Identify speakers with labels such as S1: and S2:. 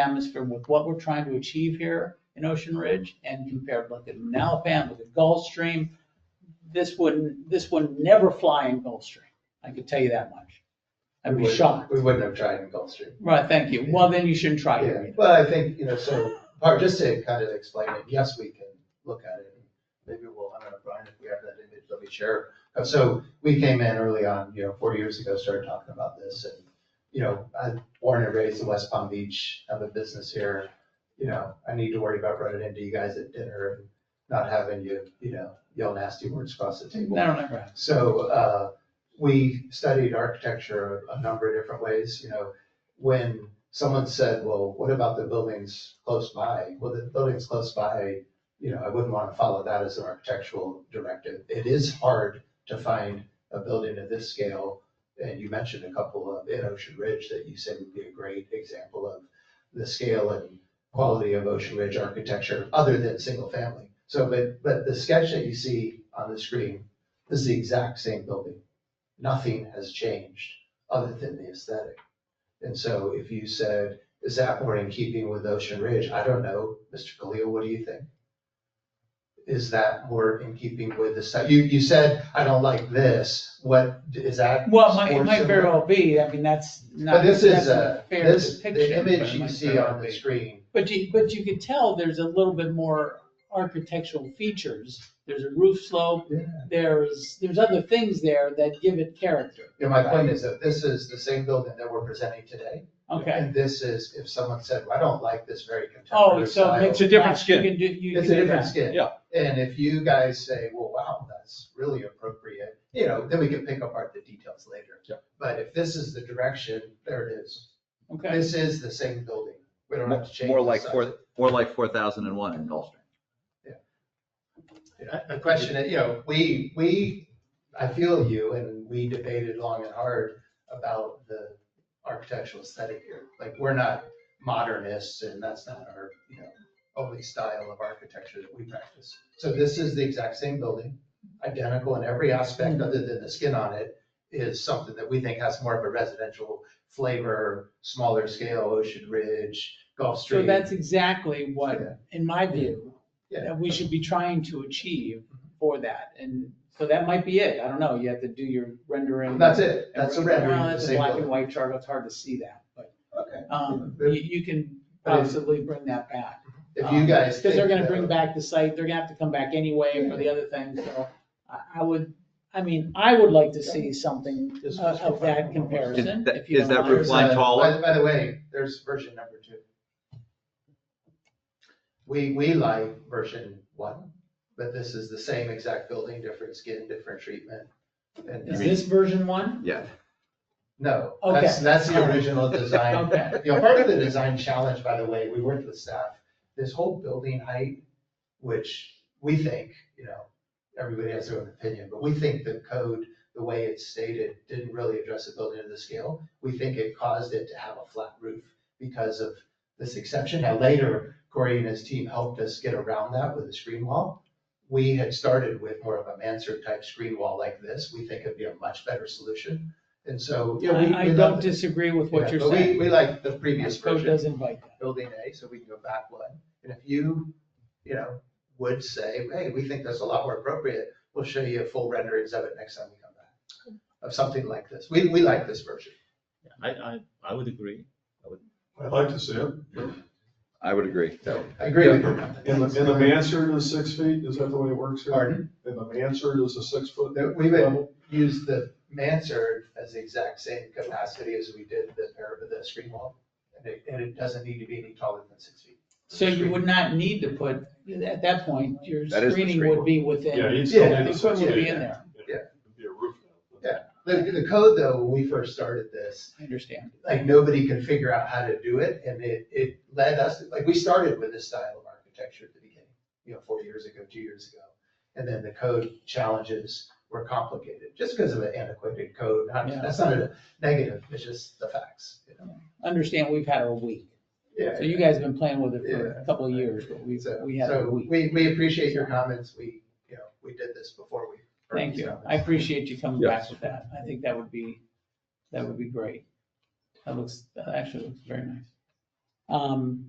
S1: atmosphere with what we're trying to achieve here in Ocean Ridge and compared, look at Nalpam, look at Gulfstream. This would, this would never fly in Gulfstream. I could tell you that much. I'd
S2: We
S1: be
S2: wouldn't-
S1: shocked.
S2: We wouldn't have tried in Gulfstream.
S1: Right, thank you. Well, then you shouldn't try it.
S2: Yeah,
S1: either.
S2: well, I think, you know, so, part, just to kind of explain it, yes, we can look at it. Maybe we'll, I don't know, Brian, if we have that image, let me share. Uh, So we came in early on, you know, four years ago, started talking about this and, you know, I'm born and raised in West Palm Beach, have a business here. You know, I need to worry about running into you guys at dinner and not having you, you know, yell nasty words across the table.
S1: That'll never happen.
S2: So uh, we studied architecture a number of different ways, you know. When someone said, well, what about the buildings close by? Well, the buildings close by, you know, I wouldn't want to follow that as an architectural directive. It is hard to find a building of this scale. And you mentioned a couple of in Ocean Ridge that you said would be a great example of the scale and quality of Ocean Ridge architecture other than single family. So, but, but the sketch that you see on the screen this is the exact same building. Nothing has changed other than the aesthetic. And so if you said, is Atmore in keeping with Ocean Ridge? I don't know. Mr. Khalil, what do you think? Is that more in keeping with the site? You, you said, I don't like this. What, is that?
S1: Well, it might, it
S2: more
S1: might very
S2: similar?
S1: well be. I mean, that's
S2: But
S1: not,
S2: this
S1: that's
S2: is,
S1: a
S2: uh,
S1: fair
S2: this,
S1: depiction.
S2: the
S1: but it
S2: image you
S1: might
S2: see
S1: very well
S2: on
S1: be.
S2: the screen,
S1: But you, but you could tell there's a little bit more architectural features. There's a roof slope.
S2: Yeah.
S1: There's, there's other things there that give it character.
S2: you know, my point is that this is the same building that we're presenting today.
S1: Okay.
S2: And this is, if someone said, well, I don't like this very
S1: Oh,
S2: contemporary
S1: so
S2: style.
S1: it makes.
S3: It's a different
S1: yeah,
S3: skin.
S1: You can do, you can
S2: It's a
S1: do
S2: different
S1: that.
S2: skin.
S3: Yeah.
S2: And if you guys say, well, wow, that's really appropriate, you know, then we can pick apart the details later.
S3: Yeah.
S2: But if this is the direction, there it is.
S1: Okay.
S2: This is the same building. We don't
S4: Mo-
S2: have to change.
S4: More
S2: the
S4: like
S2: size.
S4: four, more like four thousand and one in Gulfstream.
S2: A- A question that, you know, we, we, I feel you, and we debated long and hard about the architectural aesthetic here. Like, we're not modernists, and that's not our, you know, only style of architecture that we practice. So this is the exact same building, identical in every aspect, other than the skin on it is something that we think has more of a residential flavor, smaller scale, Ocean Ridge, Gulf
S1: So
S2: Stream.
S1: that's exactly what,
S2: Yeah.
S1: in my view,
S2: Yeah.
S1: that we should be trying to achieve for that. And so that might be it. I don't know. You have to do your rendering.
S2: That's it, that's a
S1: Well,
S2: rendering of the
S1: that's a
S2: same
S1: black and
S2: building.
S1: white chart. It's hard to see that, but,
S2: Okay.
S1: um,
S2: Yeah.
S1: you, you can
S2: But if-
S1: possibly bring that back.
S2: If you guys.
S1: Because they're
S2: think
S1: gonna
S2: that-
S1: bring back the site, they're gonna have to come back anyway for the other things, so I, I would, I mean, I would like to see something
S2: Just-
S1: of Uh, of that
S4: Is
S1: comparison.
S4: that-
S1: if you
S4: is
S1: don't
S4: that
S1: mind.
S4: roof line
S2: There's a-
S4: taller?
S2: By, by the way, there's version number two. We, we like version one, but this is the same exact building, different skin, different treatment. And-
S1: Is this version one?
S4: Yeah.
S2: No,
S1: Okay.
S2: that's, that's
S1: All
S2: the
S1: right.
S2: original design.
S1: Okay.
S2: You know, part of the design challenge, by the way, we worked with staff, this whole building height, which we think, you know, everybody has their own opinion, but we think the code, the way it's stated, didn't really address the building to the scale. We think it caused it to have a flat roof because of this exception. Now later, Corey and his team helped us get around that with a screen wall. We had started with more of a mansard type screen wall like this. We think it'd be a much better solution. And so, yeah, we.
S1: I, I
S2: we love
S1: don't
S2: it.
S1: disagree with
S2: Yeah,
S1: what you're
S2: but we-
S1: saying.
S2: We like the previous
S1: This code
S2: version,
S1: does invite that.
S2: building A, so we can go back one. And if you, you know, would say, hey, we think that's a lot more appropriate, we'll show you full renderings of it next time we come back. Of something like this. We, we like this version.
S3: I, I, I would agree.
S5: I'd like to see it.
S4: I would agree.
S2: So I agree with you.
S5: And the, and the mansard is six feet, is that the way it works here?
S2: Pardon?
S5: And the mansard is a six foot?
S2: That We would use the mansard as the exact same capacity as we did the, pair- the screen wall. And it, and it doesn't need to be any taller than six feet.
S1: So you would not need to put, at that point, your
S4: That is the
S1: screening
S4: screen.
S1: would be within.
S5: Yeah, you'd
S2: Yeah,
S5: still
S1: the
S5: need a six
S1: equipment would
S5: feet.
S1: be in there.
S2: Yeah.
S5: It'd Be a roof.
S2: Yeah. The, the code though, when we first started this,
S1: I understand.
S2: like nobody could figure out how to do it, and it, it led us, like, we started with this style of architecture at the beginning, you know, four years ago, two years ago. And then the code challenges were complicated, just because of an antiquated code, not,
S1: Yeah.
S2: that's not a negative, it's just the facts, you know?
S1: Understand, we've had a week.
S2: Yeah.
S1: So you guys have been playing with it for
S2: Yeah.
S1: a couple of years, but we,
S2: So,
S1: we had a
S2: so
S1: week.
S2: we, we appreciate your comments, we, you know, we did this before we. heard
S1: Thank
S2: these
S1: you.
S2: comments.
S1: I appreciate you coming back
S4: Yes.
S1: with that. I think that would be, that would be great. That looks, that actually looks very nice. Um,